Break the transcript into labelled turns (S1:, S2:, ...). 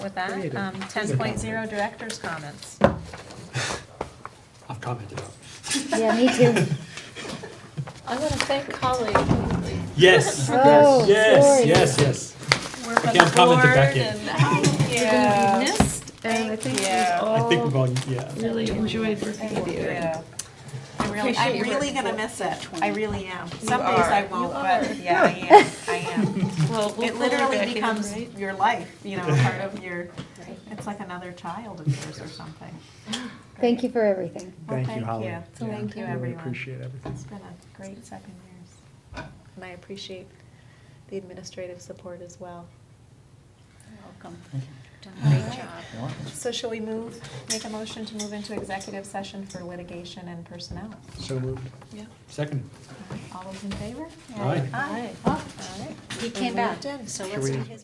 S1: with that.
S2: Creative.
S1: Um, 10.0 Director's Comments.
S2: I've commented on.
S3: Yeah, me too.
S4: I want to thank Holly.
S2: Yes,
S3: Oh,
S2: yes,
S3: sorry.
S2: yes, yes.
S1: We're for
S2: Okay,
S1: the
S2: I'm commenting
S1: board
S2: back in.
S1: and Yeah.
S5: You're gonna be missed, and I think
S1: Yeah.
S5: we've
S2: I think
S5: all
S2: we've all, yeah.
S5: really enjoyed working with you.
S1: Yeah. I really, I'm
S4: Appreciate your
S1: really
S4: work.
S1: gonna miss it. I really am. Some days
S4: are.
S1: I won't, but yeah, I am, I am.
S4: Well, we'll
S1: It
S4: pull her back
S1: literally
S4: in,
S1: becomes
S4: right?
S1: your life, you know, part of your, it's like another child of yours or something.
S3: Thank you for everything.
S1: Well,
S2: Thank you, Holly.
S1: Yeah,
S2: Yeah,
S1: Thank you,
S2: Really
S1: everyone.
S2: appreciate everything.
S1: It's been a great seven years.
S4: And I appreciate the administrative support as well.
S1: You're welcome.
S4: Great job.
S1: So shall we move, make a motion to move into executive session for litigation and personnel?
S2: So moved.
S4: Yeah.
S2: Second.
S1: All those in favor?
S2: Aye.
S1: Aye. Oh, all right.
S6: He came back, so let's do his.